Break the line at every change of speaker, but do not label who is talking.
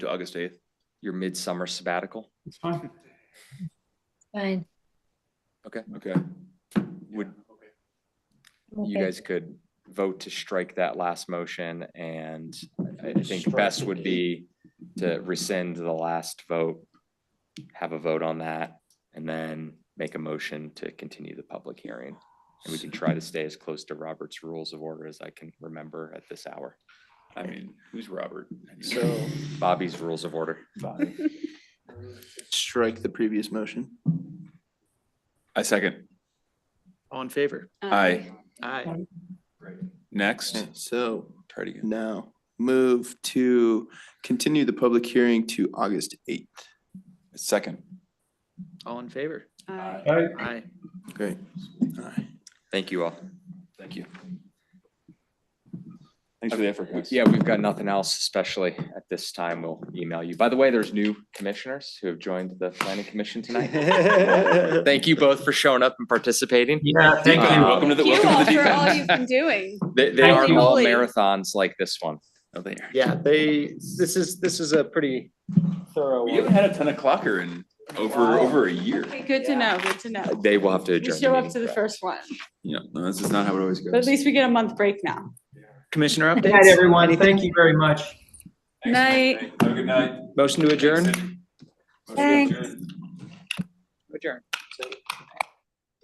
to August eighth, your midsummer sabbatical?
It's fine.
Fine.
Okay,
Okay.
would, you
Okay.
guys could vote to strike that last motion and I- I
Just
think
strike
best
the
would be to rescind the last vote, have a vote on that, and then make a motion to continue the public hearing. And we can try to stay as close to Robert's Rules of Order as I can remember at this hour,
I mean, who's Robert?
So
Bobby's Rules of Order.
strike the previous motion.
I second.
All in favor?
Aye.
Aye.
Next,
So
try it again.
now move to continue the public hearing to August eighth.
Second.
All in favor?
Aye.
Aye.
Great. All right.
Thank you all.
Thank you.
Thanks
for the effort, guys.
Yeah, we've got nothing else, especially at this time. We'll email you. By the way, there's new commissioners who have joined the planning commission tonight. Thank you both for showing up and participating.
Yeah, thank
Uh,
you.
Welcome to the,
Thank you all
welcome to the
for
deep
all
end.
you've been doing.
They, they
Thank
are
you.
all
Really.
marathons like this one.
Oh, they are.
Yeah, they, this is, this is a pretty thorough
We haven't
one.
had a ten o'clocker in over,
Wow.
over a year.
Okay, good to know, good to know.
They will have to
We
adjourn.
show up
meeting
to the
for-
first one,
Yeah, no, this is not how it always goes.
but at least we get a month break now.
Commissioner
Good night,
updates,
everyone. Thank you very much.
Night.
Have a good night.
motion to adjourn,
Thanks.
Thanks.